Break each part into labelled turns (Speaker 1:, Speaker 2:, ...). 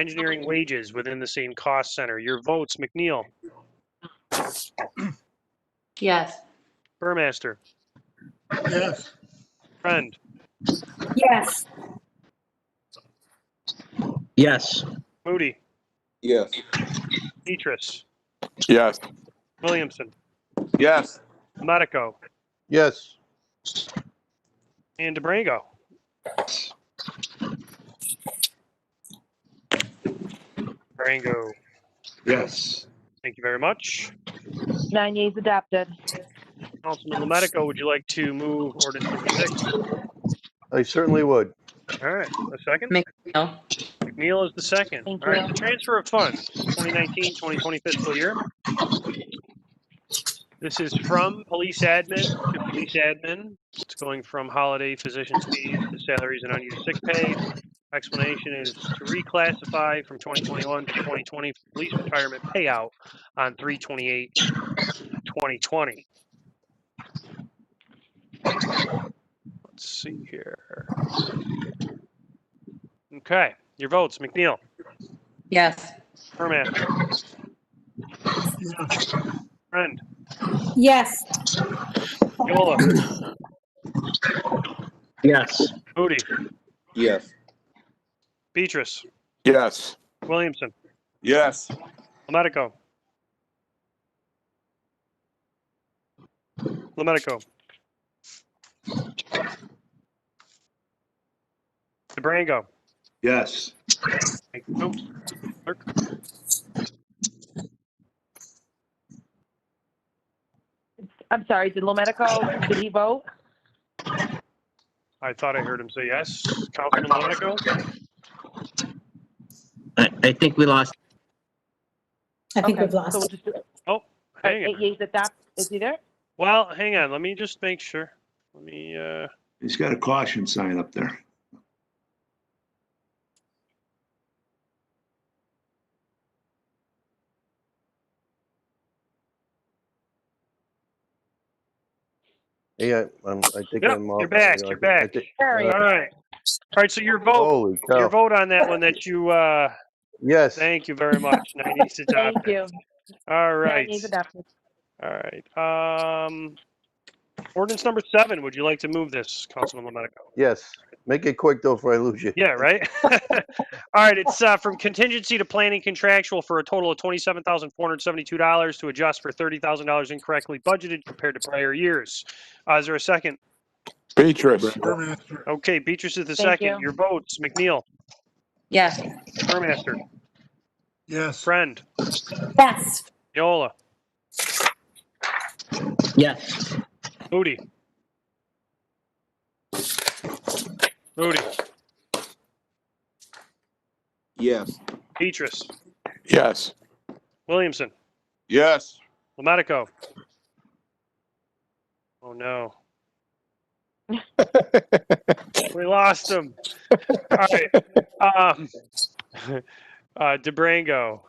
Speaker 1: engineering wages within the same cost center. Your votes, McNeil,
Speaker 2: Yes.
Speaker 1: Burmaster,
Speaker 3: Yes.
Speaker 1: Friend,
Speaker 4: Yes.
Speaker 5: Yes.
Speaker 1: Moody,
Speaker 6: Yes.
Speaker 1: Petrus,
Speaker 7: Yes.
Speaker 1: Williamson,
Speaker 7: Yes.
Speaker 1: Medico,
Speaker 3: Yes.
Speaker 1: and DeBrango. DeBrango,
Speaker 5: Yes.
Speaker 1: thank you very much.
Speaker 8: Nine yeas adopted.
Speaker 1: Councilman Medico, would you like to move ordinance number six?
Speaker 3: I certainly would.
Speaker 1: All right, a second?
Speaker 2: McNeil?
Speaker 1: McNeil is the second.
Speaker 8: Thank
Speaker 1: All right,
Speaker 8: you.
Speaker 1: the transfer of funds, 2019, 2020 fiscal year. This is from police admin to police admin. It's going from holiday physician's fees to salaries and unused sick pay. Explanation is to reclassify from 2021 to 2020 police retirement payout on 328, 2020. Let's see here. Okay, your votes, McNeil.
Speaker 2: Yes.
Speaker 1: Permaster. Friend,
Speaker 4: Yes.
Speaker 1: Yola,
Speaker 5: Yes.
Speaker 1: Moody,
Speaker 6: Yes.
Speaker 1: Beatrice,
Speaker 7: Yes.
Speaker 1: Williamson,
Speaker 7: Yes.
Speaker 1: Lomarico. Lomarico. DeBrango.
Speaker 5: Yes.
Speaker 1: Thank you. Oops. Clerk.
Speaker 8: I'm sorry, did Lomedico, did he vote?
Speaker 1: I thought I heard him say yes. Councilman Lomarico,
Speaker 5: I, I think we lost.
Speaker 4: I think
Speaker 8: Okay,
Speaker 4: we've
Speaker 8: so we'll
Speaker 4: lost.
Speaker 8: just do- uh,
Speaker 1: hang
Speaker 8: Eight
Speaker 1: on.
Speaker 8: yeas adopt, is he there?
Speaker 1: Well, hang on, let me just make sure. Let me, uh,
Speaker 9: He's got a caution sign up there.
Speaker 3: Yeah, I'm, I think
Speaker 1: Yep,
Speaker 3: I'm off.
Speaker 1: you're back,
Speaker 3: I
Speaker 1: you're
Speaker 3: think- I
Speaker 1: back.
Speaker 3: think-
Speaker 8: Carrie,
Speaker 1: all right. All right, so your vote,
Speaker 3: Holy
Speaker 1: your
Speaker 3: cow.
Speaker 1: vote on that one that you, uh,
Speaker 3: Yes.
Speaker 1: Thank you very much. Nineties
Speaker 8: thank
Speaker 1: adopted.
Speaker 8: you.
Speaker 1: All
Speaker 8: Nine
Speaker 1: right,
Speaker 8: yeas adopted.
Speaker 1: all right. Um, ordinance number seven, would you like to move this, Councilman Lomarico?
Speaker 3: Yes. Make it quick though, before I lose you.
Speaker 1: Yeah, right? All right, it's, uh, from contingency to planning contractual for a total of twenty-seven thousand four hundred seventy-two dollars to adjust for thirty thousand dollars incorrectly budgeted compared to prior years. Uh, is there a second?
Speaker 7: Beatrice.
Speaker 1: Okay, Beatrice is the
Speaker 8: Thank
Speaker 1: second.
Speaker 8: you.
Speaker 1: Your votes, McNeil,
Speaker 2: Yes.
Speaker 1: Burmaster,
Speaker 3: Yes.
Speaker 1: Friend,
Speaker 4: Yes.
Speaker 1: Yola,
Speaker 5: Yes.
Speaker 1: Moody. Moody,
Speaker 6: Yes.
Speaker 1: Beatrice,
Speaker 7: Yes.
Speaker 1: Williamson.
Speaker 7: Yes.
Speaker 1: Lomatico. Oh no. we lost him. All right. Um, uh, DeBrango.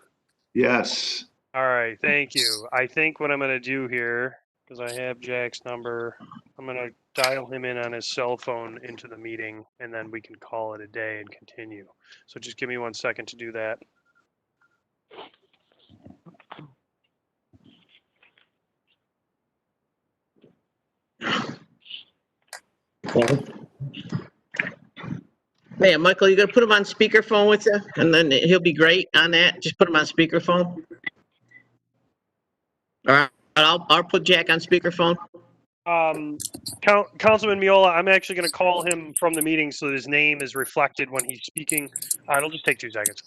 Speaker 9: Yes.
Speaker 1: All right. Thank you. I think what I'm going to do here, because I have Jack's number, I'm going to dial him in on his cell phone into the meeting, and then we can call it a day and continue. So just give me one second to do that.
Speaker 5: Man, Michael, you gonna put him on speakerphone with you, and then he'll be great on that. Just put him on speakerphone. All right, I'll, I'll put Jack on speakerphone.
Speaker 1: Um, Coun- Councilman Miola, I'm actually going to call him from the meeting so that his name is reflected when he's speaking. Uh, it'll just take two seconds.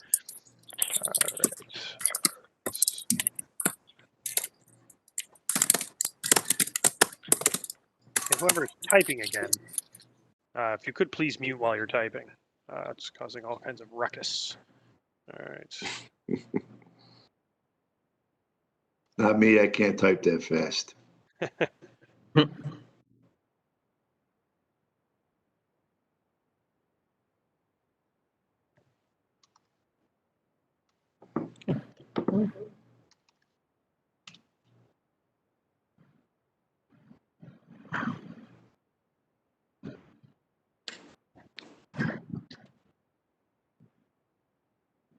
Speaker 1: And Whoever's typing again, uh, if you could please mute while you're typing. Uh, it's causing all kinds of ruckus. All right.
Speaker 9: Not me, I can't type that fast.